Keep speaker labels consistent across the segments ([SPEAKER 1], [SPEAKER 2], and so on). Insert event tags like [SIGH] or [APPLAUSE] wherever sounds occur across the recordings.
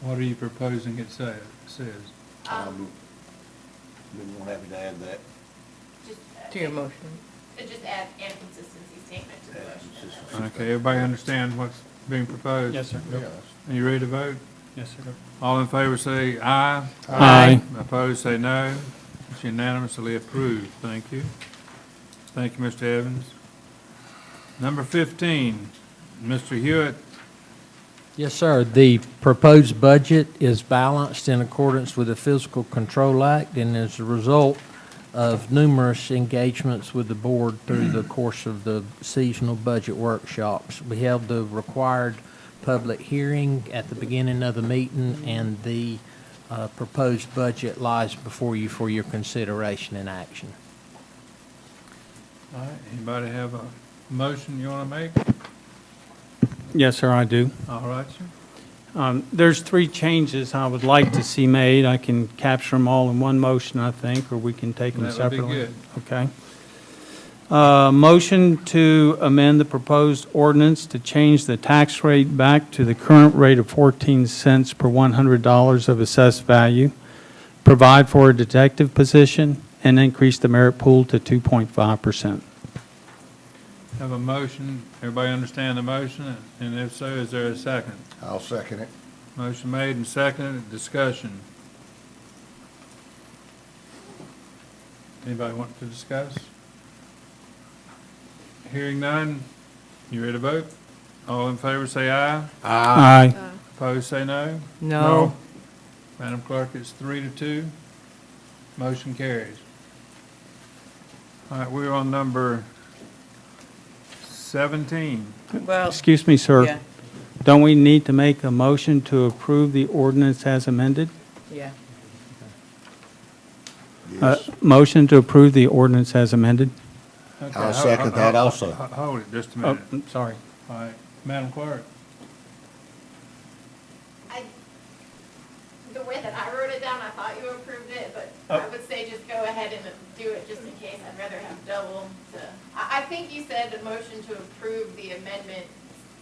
[SPEAKER 1] What are you proposing it say, says?
[SPEAKER 2] Um, we won't have to add that.
[SPEAKER 3] Just, uh,
[SPEAKER 4] To your motion.
[SPEAKER 3] uh, Just add and consistency statement to the
[SPEAKER 2] Add
[SPEAKER 3] motion.
[SPEAKER 2] consistency.
[SPEAKER 1] Okay, everybody understand what's being proposed?
[SPEAKER 5] Yes, sir.
[SPEAKER 2] Yeah, that's-
[SPEAKER 1] Are you ready to vote?
[SPEAKER 5] Yes, sir.
[SPEAKER 1] All in favor say aye.
[SPEAKER 5] Aye.
[SPEAKER 1] Opposed, say no. It's unanimously approved. Thank you. Thank you, Mr. Evans. Number 15, Mr. Hewitt,
[SPEAKER 6] Yes, sir. The proposed budget is balanced in accordance with the Fiscal Control Act and is a result of numerous engagements with the board through the course of the seasonal budget workshops. We held the required public hearing at the beginning of the meeting, and the uh, proposed budget lies before you for your consideration and action.
[SPEAKER 1] All right, anybody have a motion you want to make?
[SPEAKER 5] Yes, sir, I do.
[SPEAKER 1] All right, sir.
[SPEAKER 5] Um, There's three changes I would like to see made. I can capture them all in one motion, I think, or we can take them
[SPEAKER 1] That would be
[SPEAKER 5] separately.
[SPEAKER 1] good.
[SPEAKER 5] Okay. Uh, Motion to amend the proposed ordinance to change the tax rate back to the current rate of 14 cents per $100 of assessed value, provide for a detective position, and increase the merit pool to 2.5%.
[SPEAKER 1] Have a motion. Everybody understand the motion? And if so, is there a second?
[SPEAKER 2] I'll second it.
[SPEAKER 1] Motion made and seconded, discussion. Anybody want to discuss? Hearing none, you ready to vote? All in favor say aye,
[SPEAKER 5] Aye.
[SPEAKER 1] opposed say no.
[SPEAKER 4] No.
[SPEAKER 1] Madam Clerk, it's three to two, motion carries. All right, we're on number seventeen.
[SPEAKER 4] Well,
[SPEAKER 5] Uh, Excuse me, sir.
[SPEAKER 4] Oh. yeah,
[SPEAKER 5] Don't we need to make a motion to approve the ordinance as amended?
[SPEAKER 4] yeah.
[SPEAKER 5] Uh,
[SPEAKER 2] Yes.
[SPEAKER 5] Motion to approve the ordinance as amended?
[SPEAKER 1] Okay,
[SPEAKER 2] I'll
[SPEAKER 1] ho-
[SPEAKER 2] second that
[SPEAKER 1] ho-
[SPEAKER 2] also.
[SPEAKER 1] ho- Hold it just a
[SPEAKER 5] Oh,
[SPEAKER 1] minute.
[SPEAKER 5] I'm sorry.
[SPEAKER 1] All right, Madam Clerk.
[SPEAKER 3] I, the way that I wrote it down, I thought you approved it, but
[SPEAKER 2] Oh.
[SPEAKER 3] I would say just go ahead and do it just in case. I'd rather have double to, I, I think you said the motion to approve the amendment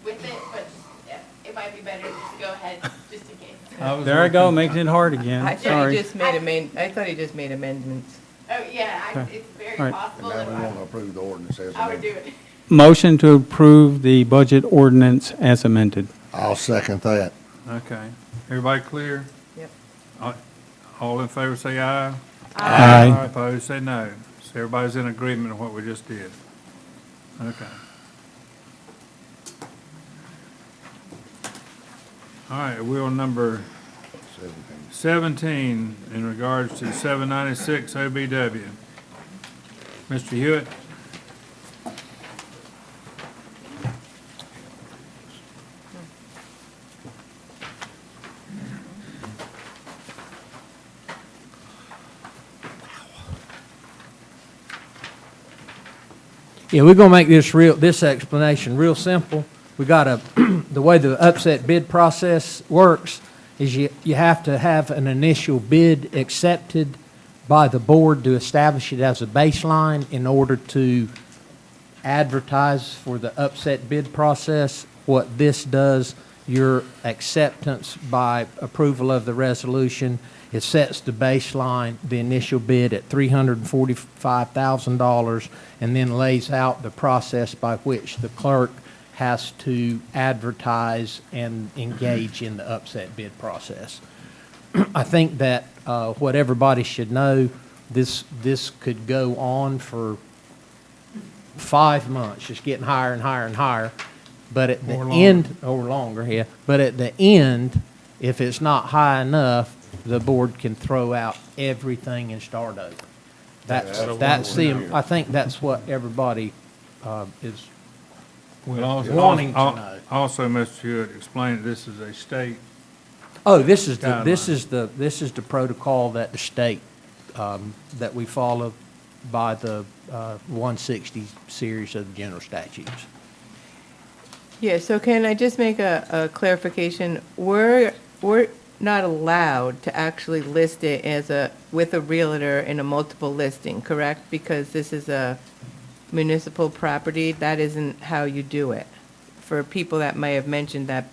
[SPEAKER 3] with it, but yeah, it might be better to just go ahead, just in case.
[SPEAKER 1] was
[SPEAKER 5] There I go,
[SPEAKER 1] looking-
[SPEAKER 5] making it hard
[SPEAKER 4] I
[SPEAKER 5] again.
[SPEAKER 4] thought he
[SPEAKER 5] Sorry.
[SPEAKER 4] just made amend, I thought he just made amendments.
[SPEAKER 3] Oh, yeah, I,
[SPEAKER 5] Okay.
[SPEAKER 3] it's very
[SPEAKER 5] All right.
[SPEAKER 3] possible.
[SPEAKER 2] And now
[SPEAKER 3] that
[SPEAKER 2] we want to
[SPEAKER 3] I-
[SPEAKER 2] approve the ordinance as
[SPEAKER 3] I would do
[SPEAKER 2] amended.
[SPEAKER 3] it.
[SPEAKER 5] Motion to approve the budget ordinance as amended.
[SPEAKER 2] I'll second that.
[SPEAKER 1] Okay, everybody clear?
[SPEAKER 4] Yep.
[SPEAKER 1] All- All in favor say aye.
[SPEAKER 5] Aye.
[SPEAKER 1] Opposed say no. So everybody's in agreement on what we just did. Okay. All right, we're on number
[SPEAKER 2] Seventeen.
[SPEAKER 1] seventeen in regards to seven ninety-six OBW. Mr. Hewitt?
[SPEAKER 6] Yeah, we're gonna make this real, this explanation real simple. We got a, [CLEARS THROAT] the way the upset bid process works is you, you have to have an initial bid accepted by the board to establish it as a baseline in order to advertise for the upset bid process. What this does, your acceptance by approval of the resolution, it sets the baseline, the initial bid at $345,000, and then lays out the process by which the clerk has to advertise and engage in the upset bid process. I think that uh, what everybody should know, this, this could go on for five months, just getting higher and higher and higher. But at the
[SPEAKER 1] Or longer.
[SPEAKER 6] end, or longer, yeah, but at the end, if it's not high enough, the board can throw out everything and start over. That's,
[SPEAKER 2] that's what
[SPEAKER 6] that's
[SPEAKER 2] we're
[SPEAKER 6] the,
[SPEAKER 2] doing.
[SPEAKER 6] I think that's what everybody uh, is,
[SPEAKER 1] Well, also-
[SPEAKER 6] Wanting to
[SPEAKER 1] al-
[SPEAKER 6] know.
[SPEAKER 1] Also, Mr. Hewitt explained that this is a state
[SPEAKER 6] oh, this is, the this
[SPEAKER 1] Guideline.
[SPEAKER 6] is the, this is the protocol that the state, um, that we follow by the uh, 160 series of general statutes.
[SPEAKER 4] Yeah, so can I just make a, a clarification? We're, we're not allowed to actually list it as a, with a realtor in a multiple listing, correct? Because this is a municipal property, that isn't how you do it. For people that may have mentioned that